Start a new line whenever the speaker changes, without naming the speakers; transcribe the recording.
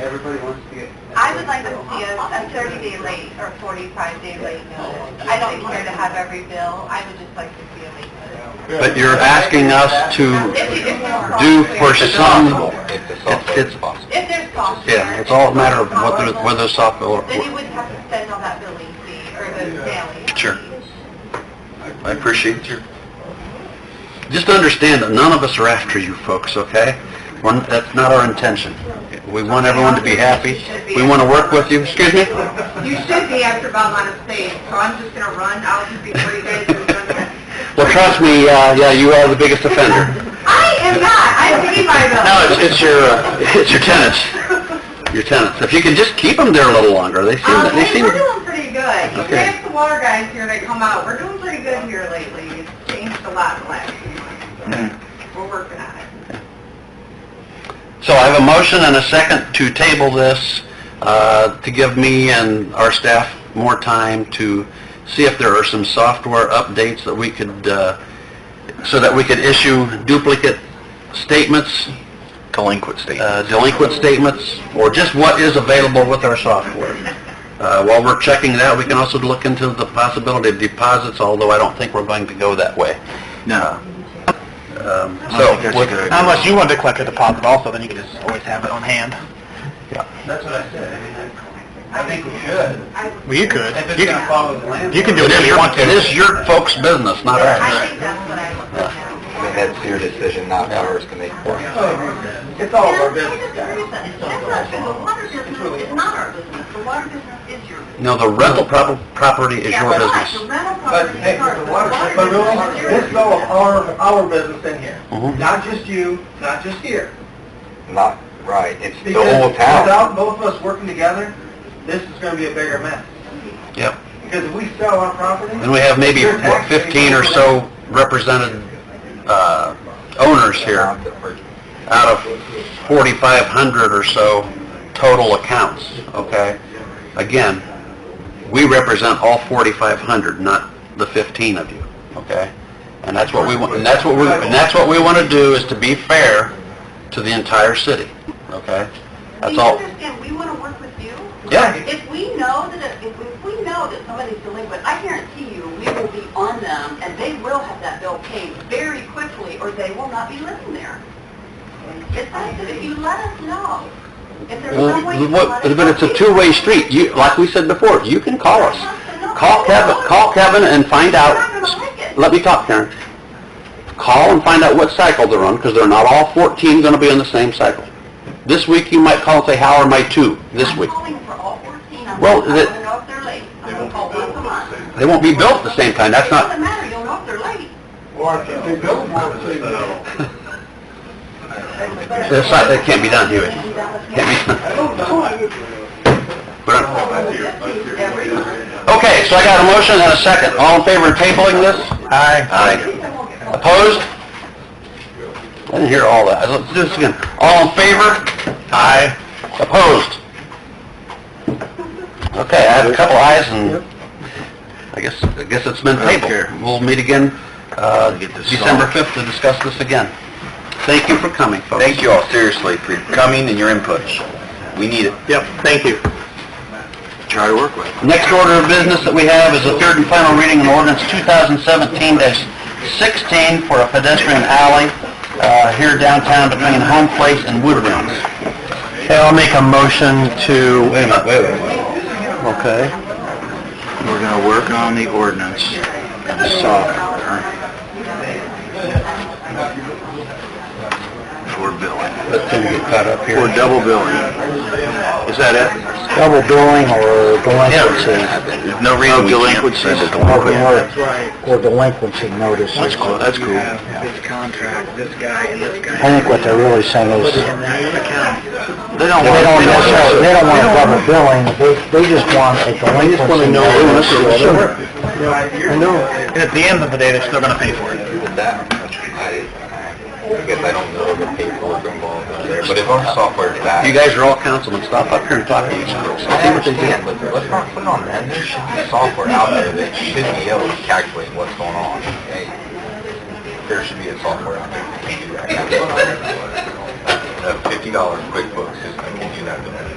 everybody wants to get.
I would like to see a, a thirty-day late or forty-five-day late notice. I don't care to have every bill, I would just like to see a late notice.
But you're asking us to
If you- if there's
do for
software-
some, it's,
If there's
it's-
software.
yeah, it's all a matter of whether,
it's
whether software,
Then you wouldn't have to spend all that billing fee or the mailing. fee.
Sure. I appreciate you. Just understand that none of us are after you folks, okay? We're- That's not our intention. We want everyone to be happy. We want to work with you. Excuse me?
You should be after Belmont Estates, so I'm just gonna run out before you guys are done.
Well, trust me, uh, yeah, you are the biggest offender.
I am not, I pay my bills.
No, it's, it's your, uh, it's your tenants. Your tenants. If you can just keep them there a little longer, they seem,
Um,
they
hey,
seem...
we're doing pretty good. You
Okay.
have the water guys here that come out. We're doing pretty good here lately. It's changed a lot in the last few
Hmm.
months. so We're working on it.
So I have a motion and a second to table this, uh, to give me and our staff more time to see if there are some software updates that we could, uh, so that we could issue duplicate statements. Delinquent statements. Delinquent statements, or just what is available with our software. Uh, While we're checking that, we can also look into the possibility of deposits, although I don't think we're going to go that way. No. So, with-
Unless you wanted to collect a deposit also, then you could just always have it on hand.
That's what I said, I mean, I, I think we should.
Well, you could.
If it's
You
gonna
can,
follow the land.
you can do
It
whatever
is
you
your,
want to.
it is your folks' business, not
I
ours.
think that's what I look at now.
That's your decision, not ours to make for you.
Oh, It's all of our
You know,
business,
I disagree with that. That's not true. The water business is not our business. The water business is your business.
No, the rental prop- property is your
Yeah, right. The
business.
rental
but
property
hey,
is ours.
the water,
business
but really,
is your
this is all of
business.
our, our business in here.
Mhm.
Not just you, not just here.
Not right, it's the
Because
whole town.
Without both of us working together, this is gonna be a bigger mess.
Yep.
Because if we sell our property,
And we have maybe what, 15 or so represented uh, owners here out of 4,500 or so total accounts, okay? Again, we represent all 4,500, not the 15 of you, okay? And that's what we want, and that's what we, and that's what we want to do, is to be fair to the entire city, okay? That's all.
Do you understand? We want to work with you.
Yeah,
If we know that, it- if if we know that somebody's delinquent, I guarantee you, we will be on them, and they will have that bill paid very quickly, or they will not be living there. It's not that if you let us know, if there's
Well,
some way you can
Uh, what-
let us
but it's a
know-
two-way street. You, like we said before, you can call us. Call Kevin, call Kevin and find
We're
out.
not gonna like it.
Let me talk, Karen. Call and find out what cycle they're on, because they're not all 14 going to be on the same cycle. This week, you might call and say, how are my two this
I'm
week?
calling for all 14. I'm
Well,
gonna-
the-
I wanna know if they're late. I'm gonna call once a month.
They won't be built at the same time. That's
It
not,
doesn't matter, you'll know if they're late.
or if they build more, they build.
that's not, that can't be done, Huey. Can't be done.
I don't know, I would-
We're not-
Every month.
uh, Okay, so I got a motion and a second. All in favor of tabling this? Aye. Aye. Opposed? I didn't hear all that. Let's do this again. All in favor? Aye. Opposed? Okay, I have a couple ayes and I guess, I guess it's been tabled. We'll meet again, uh, December 5th to discuss this again. Thank you for coming, folks. Thank you all, seriously, for coming and your inputs. We need it.
Yep, thank you.
Try to work with. Next order of business that we have is the third and final reading of ordinance 2017-16 for a pedestrian alley uh, here downtown between Home Place and Woodlands. Okay, I'll make a motion to... Wait a minute, wait a minute. Okay. We're going to work on the ordinance and the software for billing. Let's get caught up here. For double billing. Is that it? Double billing or delinquencies. No reason we can't say the delinquencies.
or delinquency notices.
That's cool, that's cool.
This contract, this guy, and this guy.
I think what they're really saying is, they
They don't
don't necessarily, they don't want a double billing, they, they just want a delinquency notice.
I know.
And at the end of the day, they're still gonna pay for it.
That, I, I guess I don't know the paperwork involved in there, but if our software is that.
You guys are all councilmen, stop up here and talk to each other.
I understand, but let's not put it on them. There should be software out there that should be able to calculate what's going on. Hey, There should be a software out there that can do that. A fifty dollar QuickBooks system can do that.